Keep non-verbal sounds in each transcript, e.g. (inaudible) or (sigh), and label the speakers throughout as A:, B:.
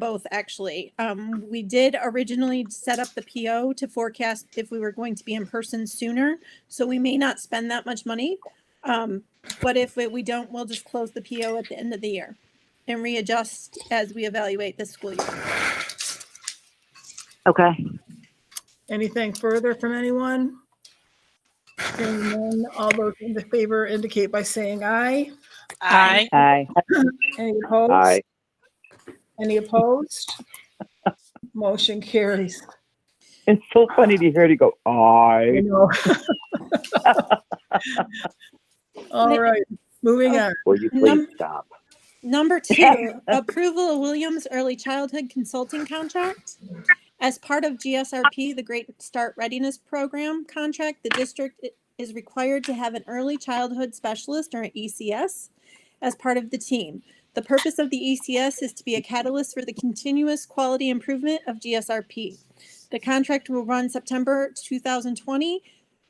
A: both actually. Um, we did originally set up the PO to forecast if we were going to be in person sooner, so we may not spend that much money. Um, but if we- we don't, we'll just close the PO at the end of the year and readjust as we evaluate this school year.
B: Okay.
C: Anything further from anyone? Hearing none, all those in favor indicate by saying aye.
D: Aye.
B: Aye.
C: Any opposed?
E: Aye.
C: Any opposed? Motion carries.
E: It's so funny to hear you go,
C: I
E: aye.
C: know. (laughs) All right, moving on.
E: Will you
A: Num-
E: please stop?
A: Number two, approval of Williams Early Childhood Consulting Contract. As part of GSRP, the Great Start Readiness Program contract, the district i- is required to have an early childhood specialist or an ECS as part of the team. The purpose of the ECS is to be a catalyst for the continuous quality improvement of GSRP. The contract will run September 2020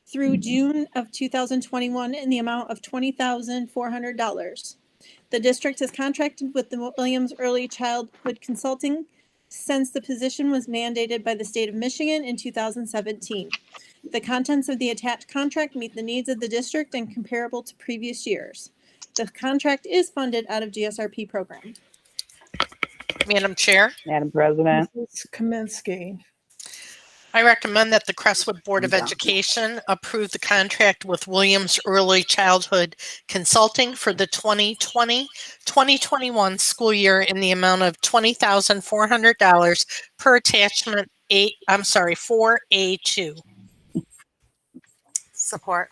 A: through June of 2021 in the amount of $20,400. The district is contracted with the Williams Early Childhood Consulting since the position was mandated by the state of Michigan in 2017. The contents of the attached contract meet the needs of the district and comparable to previous years. The contract is funded out of GSRP program.
D: Madam Chair,
B: Madam President,
C: Mrs. Kaminsky.
D: I recommend that the Crestwood Board of Education approve the contract with Williams Early Childhood Consulting for the 2020-2021 school year in the amount of $20,400 per attachment eight, I'm sorry, 4A2.
F: Support.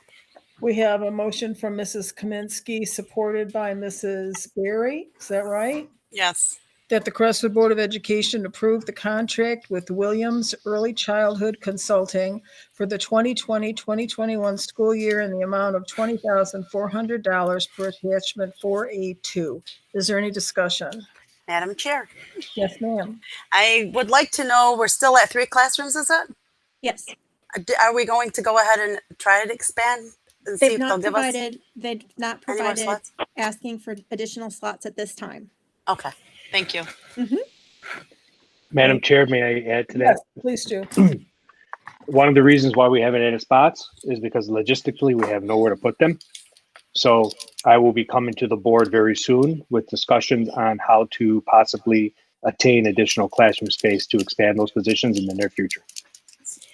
C: We have a motion from Mrs. Kaminsky, supported by Mrs. Berry. Is that right?
F: Yes.
C: That the Crestwood Board of Education approve the contract with Williams Early Childhood Consulting for the 2020-2021 school year in the amount of $20,400 per attachment 4A2. Is there any discussion?
F: Madam Chair,
C: Yes, ma'am.
F: I would like to know, we're still at three classrooms, is it?
A: Yes,
F: Uh, d- Are we going to go ahead and try to expand and see
A: they've
F: if they'll
A: not
F: give us
A: provided, they've not
F: any more
A: provided
F: slots?
A: asking for additional slots at this time.
F: Okay, thank you.
G: Madam Chair, may I add to that?
C: Yes, please do.
G: One of the reasons why we haven't added spots is because logistically, we have nowhere to put them. So I will be coming to the board very soon with discussions on how to possibly attain additional classroom space to expand those positions in the near future.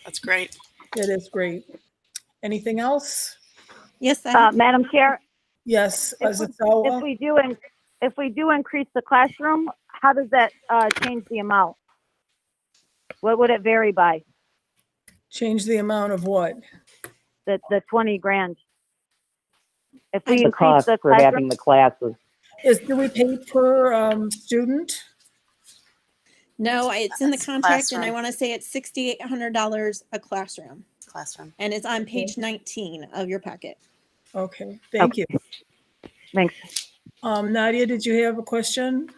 F: That's great.
C: It is great. Anything else?
A: Yes, I
E: Uh-huh.
B: uh,
F: Um,
B: Madam Chair,
C: Yes,
B: If we- if
C: Azazawa.
B: we do, in- if we do increase the classroom, how does that, uh, change the amount? What would it vary by?
C: Change the amount of what?
B: The, the 20 grand? If we
E: The
B: increase
E: cost
B: the
E: for having
B: classroom,
E: the classes.
C: Is, do we pay per um, student?
A: No, I- it's in the
F: That's
A: contract and I
F: classroom.
A: want to say it's sixty-eight hundred dollars a classroom.
F: Classroom.
A: And it's on page nineteen of your packet.
C: Okay, thank you.
B: Thanks.
C: Um, Nadia, did you have a question?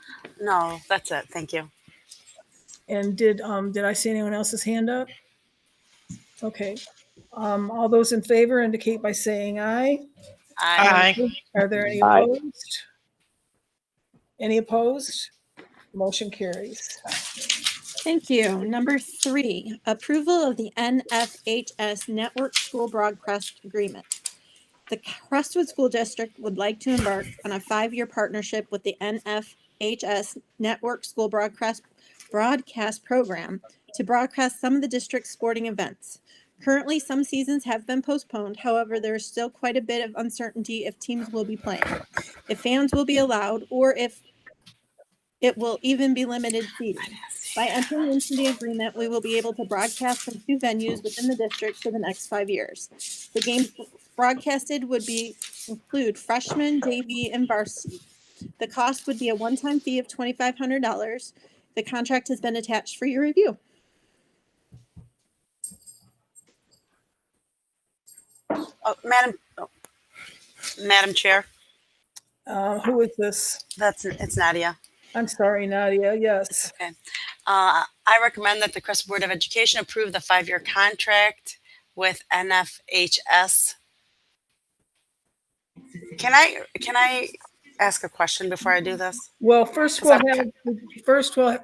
F: No, that's it. Thank you.
C: And did, um, did I see anyone else's hand up? Okay. Um, all those in favor indicate by saying aye.
F: I
C: Are there any
E: Aye.
C: opposed? Any opposed? Motion carries.
A: Thank you. Number three, approval of the NFHS Network School Broadcast Agreement. The Crestwood School District would like to embark on a five-year partnership with the NFHS Network School Broadcast Broadcast Program to broadcast some of the district's sporting events. Currently, some seasons have been postponed. However, there is still quite a bit of uncertainty if teams will be playing, if fans will be allowed, or if it will even be limited seating. By entering into the agreement, we will be able to broadcast from two venues within the district for the next five years. The games broadcasted would be, include freshman, JV, and varsity. The cost would be a one-time fee of twenty-five hundred dollars. The contract has been attached for your review.
F: Oh, Madam, oh. Madam Chair,
C: Uh, who is this?
F: that's, it's Nadia.
C: I'm sorry, Nadia, yes.
F: Uh, I recommend that the Crestwood Board of Education approve the five-year contract with NFHS. Can I, can I ask a question before I do this?
C: Well, first we'll have, first we'll